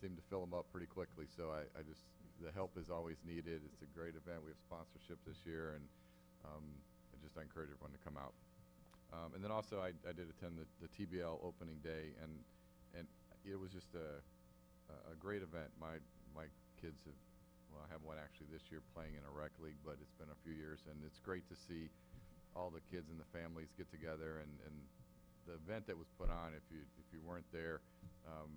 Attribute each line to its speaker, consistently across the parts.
Speaker 1: seem to fill them up pretty quickly, so I, I just, the help is always needed. It's a great event. We have sponsorship this year, and um, I just encourage everyone to come out. Um, and then also, I, I did attend the, the TBL opening day, and, and it was just a, a- a great event. My, my kids have, well, I have one actually this year playing in a rec league, but it's been a few years, and it's great to see all the kids and the families get together, and, and the event that was put on, if you, if you weren't there, um,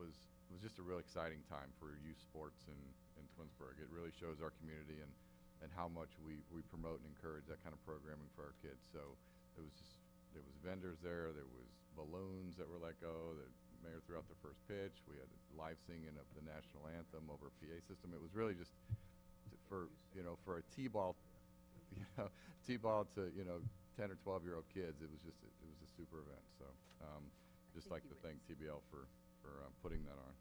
Speaker 1: was, was just a real exciting time for youth sports in, in Twinsburg. It really shows our community and, and how much we, we promote and encourage that kind of programming for our kids. So it was just, there was vendors there, there was balloons that were let go, the mayor threw out the first pitch, we had live singing of the national anthem over a PA system. It was really just t- for, you know, for a T-ball, you know, T-ball to, you know, ten or twelve-year-old kids, it was just, a- it was a super event, so, um, just
Speaker 2: think
Speaker 1: like
Speaker 2: you
Speaker 1: to
Speaker 2: were
Speaker 1: thank TBL for, for uh, putting that on.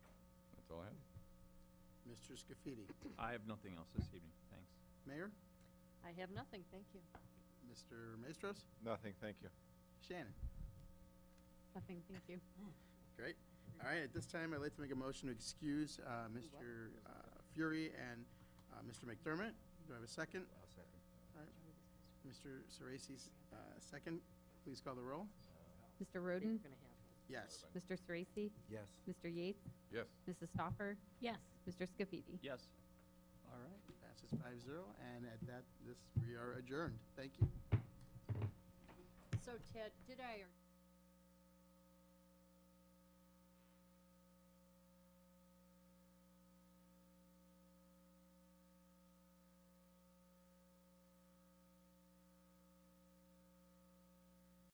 Speaker 1: That's all I have.
Speaker 3: Mr. Scafidi.
Speaker 4: I have nothing else this evening, thanks.
Speaker 3: Mayor,
Speaker 2: I have nothing, thank you.
Speaker 3: Mr. Maestros,
Speaker 5: Nothing, thank you.
Speaker 3: Shannon.
Speaker 2: Nothing, thank you.
Speaker 3: Great. All right, at this time, I'd like to make a motion to excuse uh, Mr. uh, Fury and uh, Mr. McDermott. Do I have a second?
Speaker 6: I'll second.
Speaker 3: All right. Mr. Sorese, uh second. Please call the roll.
Speaker 7: Mr.
Speaker 2: We're gonna
Speaker 7: Roden,
Speaker 2: have one.
Speaker 3: Yes.
Speaker 7: Mr. Sorese,
Speaker 6: Yes.
Speaker 7: Mr. Yates,
Speaker 1: Yes,
Speaker 7: Mrs. Stoffer,
Speaker 2: Yes,
Speaker 7: Mr. Scafidi.
Speaker 4: Yes,
Speaker 3: All right, passes five zero, and at that, this, we are adjourned. Thank you.
Speaker 2: so Ted, did I or